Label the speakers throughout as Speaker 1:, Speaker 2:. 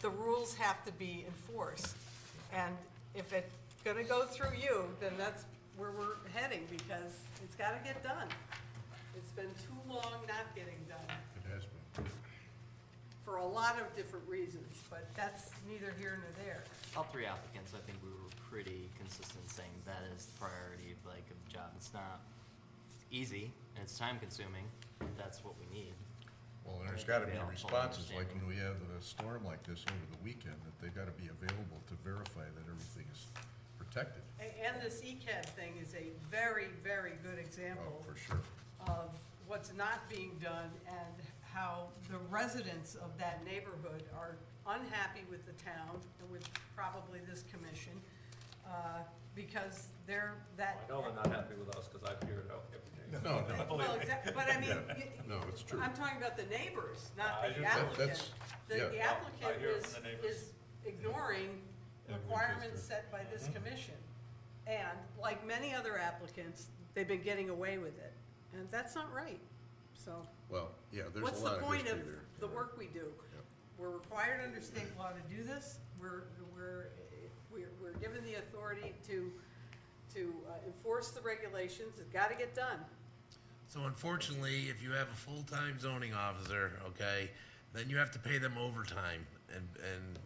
Speaker 1: the rules have to be enforced. And if it's gonna go through you, then that's where we're heading, because it's gotta get done. It's been too long not getting done,
Speaker 2: It has been.
Speaker 1: for a lot of different reasons, but that's neither here nor there.
Speaker 3: All three applicants, I think we were pretty consistent saying that is the priority of like of the job. It's not easy and it's time consuming. That's what we need.
Speaker 2: Well, and there's
Speaker 3: Right.
Speaker 2: gotta be
Speaker 3: They all
Speaker 2: responses, like
Speaker 3: understand.
Speaker 2: when we have a storm like this over the weekend, that they gotta be available to verify that everything is protected.
Speaker 1: A- And this ECAD thing is a very, very good
Speaker 2: Oh,
Speaker 1: example
Speaker 2: for sure.
Speaker 1: of what's not being done and how the residents of that neighborhood are unhappy with the town and with probably this commission, uh, because they're that.
Speaker 2: Oh,
Speaker 4: I know they're not happy with us, because I figure it out every day.
Speaker 2: No, no,
Speaker 1: Well, exact- But I mean, you-
Speaker 2: no, it's true.
Speaker 1: I'm talking about the neighbors, not
Speaker 4: I
Speaker 1: the
Speaker 4: do-
Speaker 2: That-
Speaker 1: applicant.
Speaker 2: that's-
Speaker 1: The
Speaker 2: yeah.
Speaker 1: the
Speaker 2: No,
Speaker 4: I
Speaker 1: applicant
Speaker 4: hear
Speaker 1: is,
Speaker 4: from the neighbors.
Speaker 1: is ignoring
Speaker 2: Yeah, we just
Speaker 1: requirements
Speaker 2: do. Mm-hmm.
Speaker 1: set by this commission. And like many other applicants, they've been getting away with it, and that's not right, so.
Speaker 2: Well, yeah, there's
Speaker 1: What's
Speaker 2: a
Speaker 1: the
Speaker 2: lot of
Speaker 1: point of
Speaker 2: history there.
Speaker 1: the work we do?
Speaker 2: Yep.
Speaker 1: We're required under state law to do this, we're, we're, we're, we're given the authority to, to uh, enforce the regulations, it's gotta get done.
Speaker 5: So unfortunately, if you have a full-time zoning officer, okay, then you have to pay them overtime and, and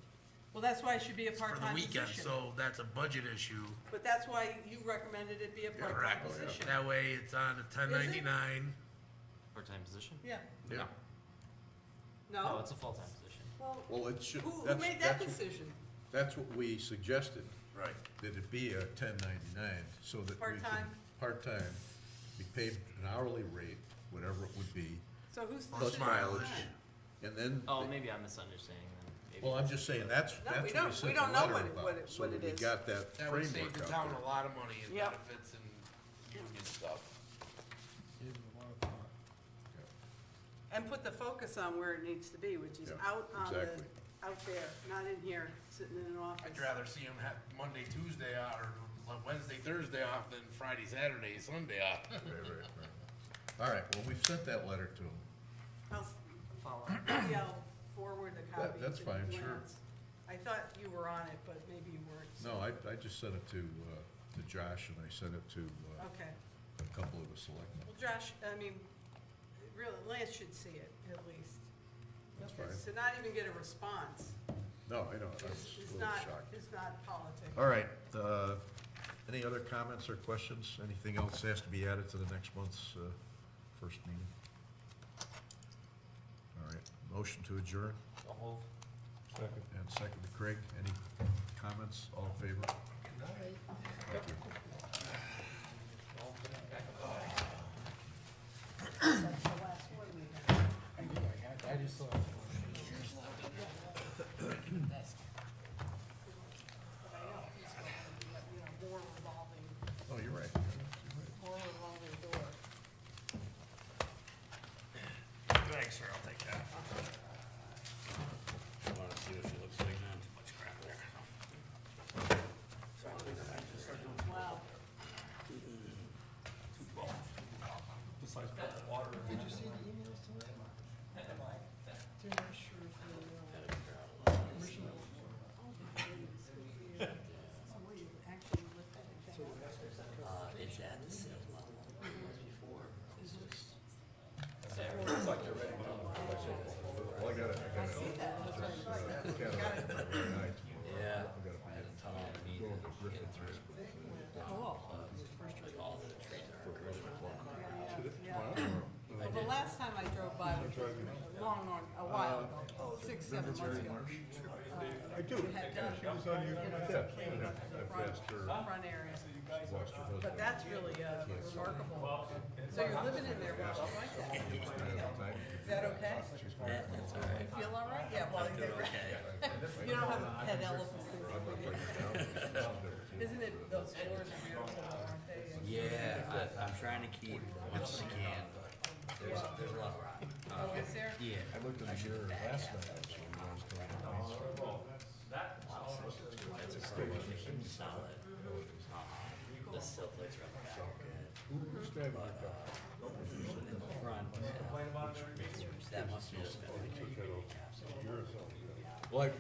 Speaker 1: Well, that's why it should be a
Speaker 5: for the
Speaker 1: part-time
Speaker 5: weekend,
Speaker 1: position.
Speaker 5: so that's a budget issue.
Speaker 1: But that's why you recommended it be a part-time
Speaker 2: Oh,
Speaker 5: Correct.
Speaker 1: position.
Speaker 5: That way it's on a ten ninety-nine.
Speaker 3: Part-time position?
Speaker 1: Yeah,
Speaker 2: Yeah,
Speaker 3: No,
Speaker 1: no,
Speaker 3: it's a full-time position.
Speaker 1: well,
Speaker 2: Oh, well, it should,
Speaker 1: who, who
Speaker 2: that's,
Speaker 1: made that
Speaker 2: that's, what-
Speaker 1: decision?
Speaker 2: that's what we suggested,
Speaker 5: Right.
Speaker 2: that it be a ten ninety-nine, so that we could.
Speaker 1: Part-time.
Speaker 2: Part-time, be paid an hourly rate, whatever it would be,
Speaker 1: So who's the
Speaker 5: Plus
Speaker 1: decision?
Speaker 5: mileage.
Speaker 2: and then.
Speaker 3: Oh,
Speaker 2: they-
Speaker 3: maybe I'm misunderstanding then. Maybe
Speaker 2: Well, I'm
Speaker 3: that's-
Speaker 2: just saying, that's,
Speaker 1: No, we
Speaker 2: that's what
Speaker 1: don't-
Speaker 2: we
Speaker 1: we
Speaker 2: sent
Speaker 1: don't
Speaker 2: the
Speaker 1: know
Speaker 2: letter
Speaker 1: what it- what
Speaker 2: about,
Speaker 1: it-
Speaker 2: so
Speaker 1: what
Speaker 2: that
Speaker 1: it
Speaker 2: we
Speaker 1: is.
Speaker 2: got that
Speaker 5: That would save
Speaker 2: framework
Speaker 5: the
Speaker 2: out
Speaker 5: town
Speaker 2: there.
Speaker 5: a lot of money in
Speaker 1: Yep.
Speaker 5: benefits and union stuff.
Speaker 1: And put the focus on where it needs to be, which is
Speaker 2: Yeah,
Speaker 1: out on the,
Speaker 2: exactly.
Speaker 1: out there, not in here, sitting in an office.
Speaker 5: I'd rather see them have Monday, Tuesday off, or Wednesday, Thursday off than Friday, Saturday, Sunday off.
Speaker 2: Right, right, right. All right, well, we've sent that letter to them.
Speaker 1: I'll s-
Speaker 3: Follow.
Speaker 1: maybe I'll forward a copy.
Speaker 2: that's
Speaker 1: to
Speaker 2: fine, sure.
Speaker 1: Lance. I thought you were on it, but maybe you weren't.
Speaker 2: No, I, I just sent it to, uh, to Josh, and I sent it to, uh,
Speaker 1: Okay,
Speaker 2: a couple of the selectmen.
Speaker 1: well, Josh, I mean, really, Lance should see it, at least.
Speaker 2: That's
Speaker 1: Okay,
Speaker 2: fine.
Speaker 1: So not even get a response,
Speaker 2: No, I know, I was
Speaker 1: is
Speaker 2: a
Speaker 1: is
Speaker 2: little
Speaker 1: not,
Speaker 2: shocked.
Speaker 1: is not politics.
Speaker 2: All right, uh, any other comments or questions? Anything else has to be added to the next month's, uh, first meeting? All right, motion to adjourn,
Speaker 4: I'll move. Second.
Speaker 2: and second to Craig, any comments, all in favor? Thank you.
Speaker 1: That's the last one we have. But I know he's going to be, you know, more revolving,
Speaker 2: Oh, you're right.
Speaker 1: more revolving door.
Speaker 5: Thanks, sir, I'll take that. I wanna see what she looks like now, too much crap there.
Speaker 1: Wow.
Speaker 4: Besides put the water in there.
Speaker 2: Well, I gotta, I gotta. I gotta-
Speaker 6: Yeah.
Speaker 2: I gotta-
Speaker 6: I had a tunnel to meet and get through. All the trees are really
Speaker 1: Well, the last time I drove by was a long, long, a while ago, six, seven months ago.
Speaker 2: I do.
Speaker 1: Had uh,
Speaker 2: Yeah,
Speaker 1: done
Speaker 2: She was on your, yeah, she would have I've asked her,
Speaker 1: the front area,
Speaker 2: she lost her
Speaker 1: but
Speaker 2: husband.
Speaker 1: that's really uh, remarkable. So you're living in there, well, I like that. Is that okay?
Speaker 6: That's all right.
Speaker 1: You feel all right? Yeah, well,
Speaker 6: Doing
Speaker 1: they're-
Speaker 6: okay.
Speaker 1: you don't have a pet elephant. Isn't it those floors are beautiful, aren't they? And-
Speaker 6: Yeah, I, I'm trying to keep what I can, but there's, there's a lot of rock.
Speaker 1: Oh, is there?
Speaker 6: Yeah.
Speaker 2: I looked in the mirror last night, actually, when I was going to the hospital.
Speaker 6: That's a pretty solid. Um, The silt lights are on the back.
Speaker 2: Who's driving your car?
Speaker 6: In the front. uh, That must have just been.
Speaker 2: Well, I-